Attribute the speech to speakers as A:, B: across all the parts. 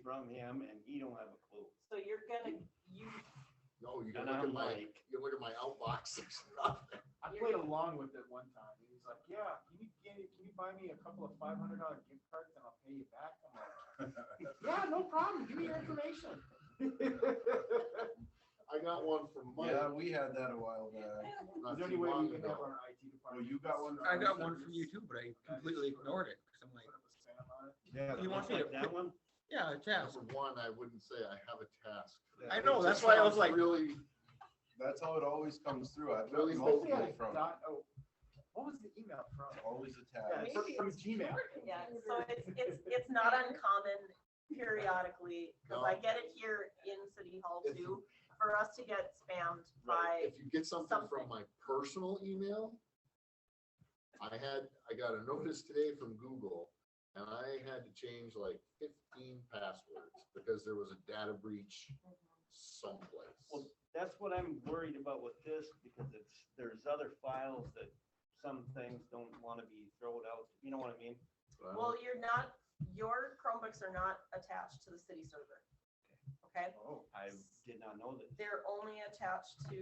A: from him and he don't have a clue.
B: So you're gonna, you,
C: No, you can
A: And
C: look
A: I'm
C: at my,
A: like,
C: you look at my outbox, there's nothing.
D: I played along with it one time, and he's like, yeah, can you, can you, can you buy me a couple of five hundred dollar gift cards and I'll pay you back? I'm like, yeah, no problem, give me your information.
C: I got one from Mike.
E: Yeah, we had that a while back.
C: not
D: Is there
C: too
D: any way
C: long
D: we can
C: ago.
D: have our IT
E: Well,
D: department?
E: you got one.
F: I Oh, got one from you too, but I completely ignored it, cause I'm like,
D: Put up a spam on it?
E: Yeah.
F: You want me to-
A: Like That one?
F: yeah, a task.
C: Number one, I wouldn't say I have a task.
E: Yeah.
F: I know,
C: It just
F: that's why I was
C: sounds
F: like,
C: Really,
E: That's how it always comes through. I've got
C: Really?
D: Mostly I
E: multiple from,
D: dot- oh, What was the email from?
E: always
D: Yeah,
E: attached.
D: it's from- from Gmail.
B: yeah, so it's, it's, it's not uncommon periodically, cause I get it here in City Hall
C: If-
B: too, for us to get spammed by,
C: right, if you get something
B: something.
C: from my personal email, I had, I got a notice today from Google and I had to change like fifteen passwords because there was a data breach
F: Mm-hmm.
C: someplace.
A: Well, that's what I'm worried about with this, because it's, there's other files that some things don't wanna be thrown out, you know what I mean?
C: uh,
B: well, you're not, your Chromebooks are not attached to the city server. Okay,
D: Oh,
A: I did not know that.
B: they're only attached to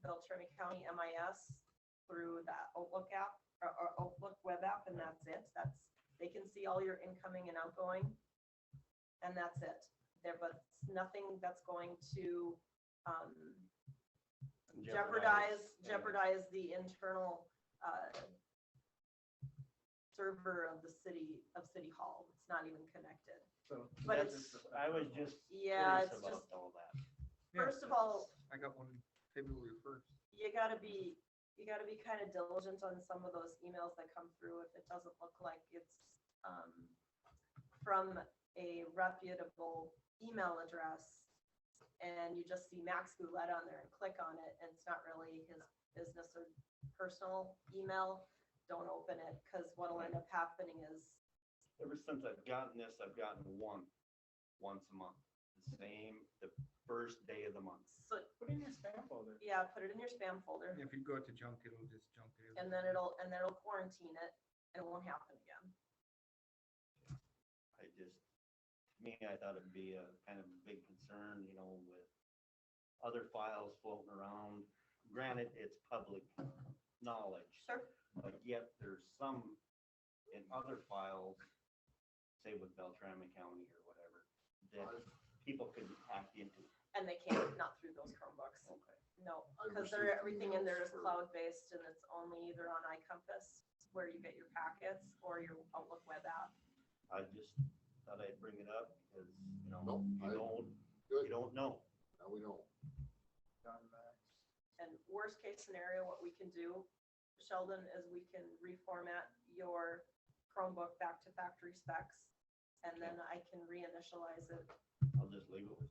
B: Beltrami County MIS through that Outlook app, or, or Outlook web app, and that's it, that's, they can see all your incoming and outgoing. And that's it, there, but nothing that's going to, um, jeopardize,
A: yeah.
B: jeopardize the internal, uh, server of the city, of City Hall, it's not even connected.
D: so
B: But
D: that's
B: it's-
D: just-
A: I was just
B: Yeah,
A: curious
B: it's
A: about
B: just,
A: all that.
F: Yeah,
B: first of all,
F: I got one February first.
B: you gotta be, you gotta be kind of diligent on some of those emails that come through if it doesn't look like it's, um, from a reputable email address. And you just see Max Goulet on there and click on it, and it's not really his business or personal email. Don't open it, cause what'll end up happening is,
A: ever since I've gotten this, I've gotten one, once a month, the same, the first day of the month.
B: so,
D: Put in your spam folder.
B: yeah, put it in your spam folder,
F: If you go to junk, it'll just junk it.
B: and then it'll, and then it'll quarantine it, and it won't happen again.
A: I just, to me, I thought it'd be a kind of big concern, you know, with other files floating around. Granted, it's public knowledge,
B: Sure.
A: but yet there's some in other files, say with Beltrami County or whatever, that
C: I've-
A: people could hack into.
B: And they can't, not through those Chromebooks. No,
C: I
B: because they're,
C: received
B: everything in there
C: emails
B: is
C: for-
B: cloud-based and it's only either on iCompass where you get your packets or your Outlook web app.
A: I just thought I'd bring it up because, you know,
C: Nope,
A: you
C: I-
A: don't, you
C: Good,
A: don't know.
C: now we don't.
D: Done that.
B: And worst case scenario, what we can do, Sheldon, is we can reformat your Chromebook back to factory specs. And then I can reinitialize it.
A: I'll just leave it with you.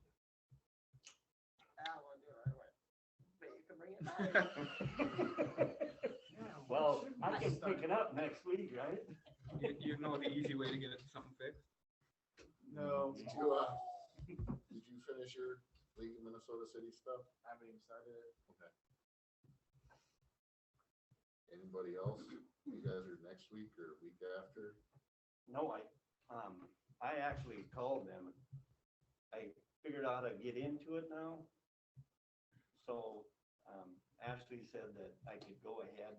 B: I won't do it right away. But you can bring it back.
D: Yeah,
A: Well,
D: shouldn't
A: I
D: we
A: can
D: start-
A: pick it up next week, right?
F: You, you know the easy way to get it something fixed.
D: No,
C: Did you, uh, did you finish your League of Minnesota City stuff?
D: I haven't even started it.
C: Okay. Anybody else? You guys are next week or week after?
A: No, I, um, I actually called them. I figured out how to get into it now. So, um, Ashley said that I could go ahead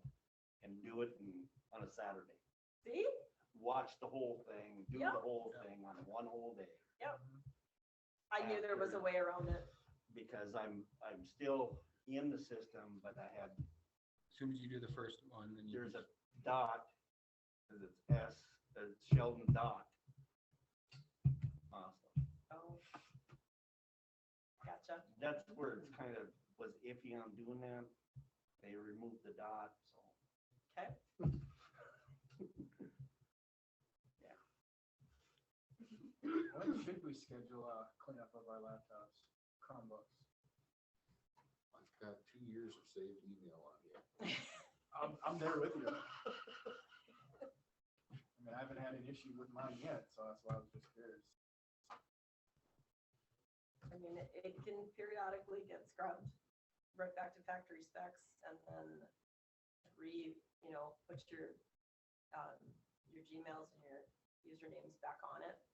A: and do it in, on a Saturday.
B: See?
A: Watch the whole thing, do the
B: Yep.
A: whole thing on one whole day.
B: I knew there was a way around it.
A: Because I'm, I'm still in the system, but I had,
F: As Soon as you do the first one, then you.
A: there's a dot, cause it's S, it's Sheldon dot. Awesome.
B: Oh. Gotcha.
A: that's where it's kind of was iffy on doing that. They removed the dot, so.
B: Okay.
D: When should we schedule a cleanup of our laptops, Chromebooks?
C: I've got two years of saved email on here.
D: I'm, I'm there with you. I mean, I haven't had an issue with mine yet, so that's why I was just curious.
B: I mean, it, it can periodically get scrubbed right back to factory specs and then re, you know, put your, um, your Gmails and your usernames back on it.